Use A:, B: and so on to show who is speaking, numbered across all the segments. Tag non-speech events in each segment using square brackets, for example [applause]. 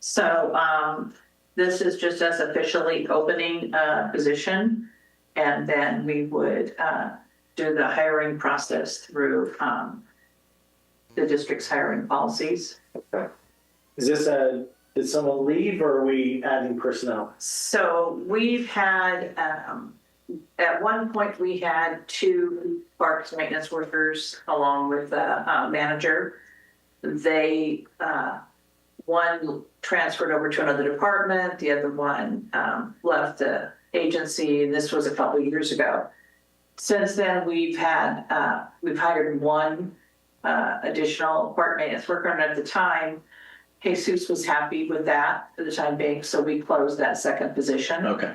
A: So um, this is just us officially opening a position. And then we would uh, do the hiring process through um, the district's hiring policies.
B: Is this a, did someone leave or are we adding personnel?
A: So we've had, um, at one point, we had two parks maintenance workers along with the uh, manager. They, uh, one transferred over to another department, the other one, um, left the agency, and this was a couple of years ago. Since then, we've had, uh, we've hired one, uh, additional park maintenance worker, and at the time, Jesus was happy with that for the time being, so we closed that second position.
C: Okay.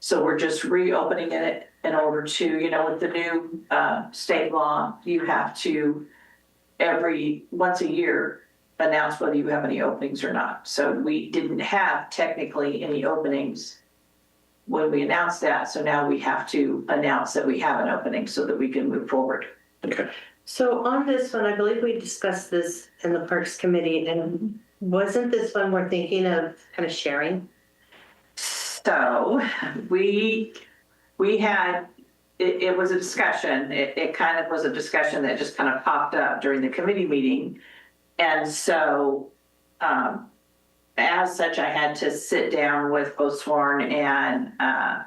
A: So we're just reopening it in order to, you know, with the new uh, state law, you have to every, once a year, announce whether you have any openings or not. So we didn't have technically any openings when we announced that, so now we have to announce that we have an opening so that we can move forward.
C: Okay.
D: So on this one, I believe we discussed this in the Parks Committee, and wasn't this one we're thinking of kind of sharing?
A: So we, we had, it, it was a discussion, it, it kind of was a discussion that just kind of popped up during the committee meeting. And so, um, as such, I had to sit down with both Sworn and, uh,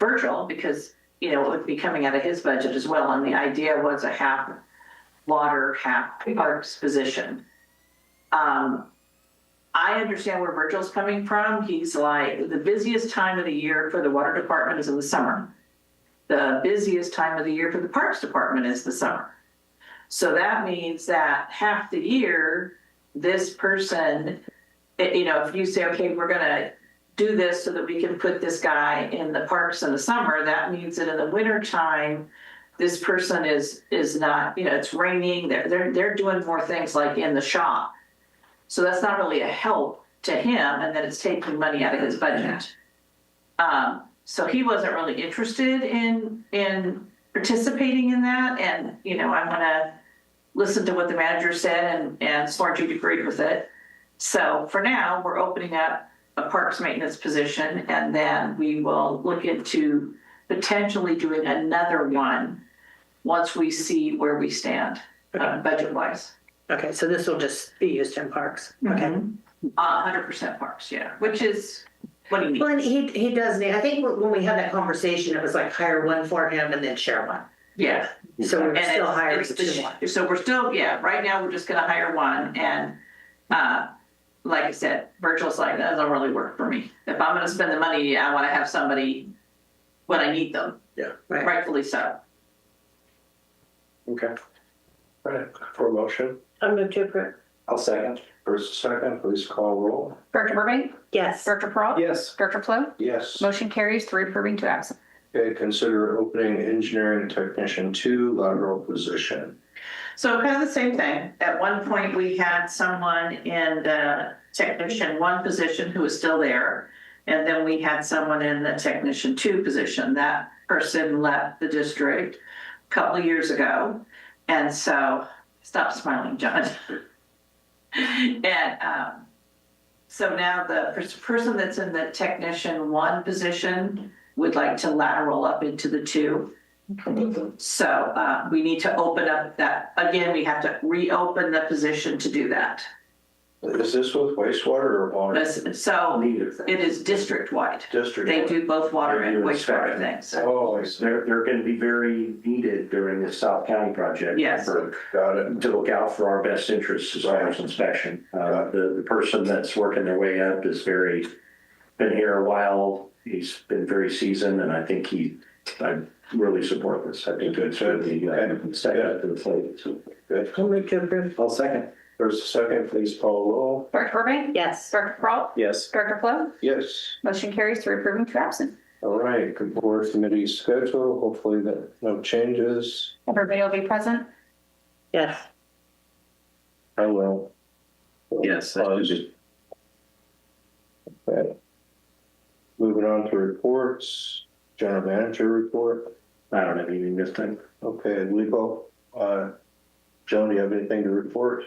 A: Virgil because, you know, it would be coming out of his budget as well. And the idea was a half water, half parks position. Um, I understand where Virgil's coming from. He's like, the busiest time of the year for the water department is in the summer. The busiest time of the year for the parks department is the summer. So that means that half the year, this person, it- you know, if you say, okay, we're gonna do this so that we can put this guy in the parks in the summer, that means that in the winter time, this person is, is not, you know, it's raining, they're, they're, they're doing more things like in the shop. So that's not really a help to him, and then it's taking money out of his budget. Um, so he wasn't really interested in, in participating in that, and, you know, I'm gonna listen to what the manager said and, and sworn to agreed with it. So for now, we're opening up a parks maintenance position, and then we will look into potentially doing another one once we see where we stand, uh, budget-wise.
D: Okay, so this will just be used in parks, okay? Mm-hmm.
A: Uh, hundred percent parks, yeah, which is, what do you
D: Well,
A: mean?
D: and he, he does, need- I think when we had that conversation, it was like hire one for him and then share one.
A: Yeah.
D: So
A: and
D: we're
A: it's-
D: still hiring
A: it's the
D: two
A: sh-
D: more.
A: So we're still, yeah, right now, we're just gonna hire one, and, uh, like I said, Virgil's like, that doesn't really work for me. If I'm gonna spend the money, I wanna have somebody when I need them,
D: Right,
A: rightfully so.
B: Okay.
E: Right, for a motion.
D: I'll move to approve.
E: I'll second. First, second, please call roll.
F: Director Burbank?
D: Yes,
F: Director Peralta?
B: Yes.
F: Director Flo?
E: Yes.
F: Motion carries three approving, two absent.
E: Okay, consider opening engineering technician two lateral position.
A: So kind of the same thing, at one point, we had someone in the technician one position who was still there, and then we had someone in the technician two position, that person left the district, couple of years ago. And so, stop smiling, John. [laughs] And um, so now the pers- person that's in the technician one position would like to lateral up into the two. So uh, we need to open up that, again, we have to reopen the position to do that.
E: Is this with wastewater or water?
A: This- So
E: Neither.
A: it is district-wide.
E: District.
A: They do both water and
G: They're
A: wastewater
G: inspecting.
A: things.
E: Oh, I see.
G: They're, they're gonna be very needed during this South County project.
A: Yes.
G: for-
E: got it.
G: To look out for our best interests as far as inspection. Uh, the, the person that's working their way up is very, been here a while. He's been very seasoned and I think he, I really support this. I think it's really, uh, step up to the plate. So,
E: Good.
D: I'll move to approve.
B: I'll second.
E: First, second, please call roll.
F: Director Burbank?
D: Yes,
F: Director Peralta?
B: Yes.
F: Director Flo?
E: Yes.
F: Motion carries three approving, two absent.
E: All right, good board committee schedule. Hopefully that no changes.
F: Everybody will be present.
D: yes.
E: I will.
C: Yes, that should be-
E: Okay. Moving on to reports, general manager report.
G: I don't have anything this time.
E: Okay, legal, uh, Joan, do you have anything to report?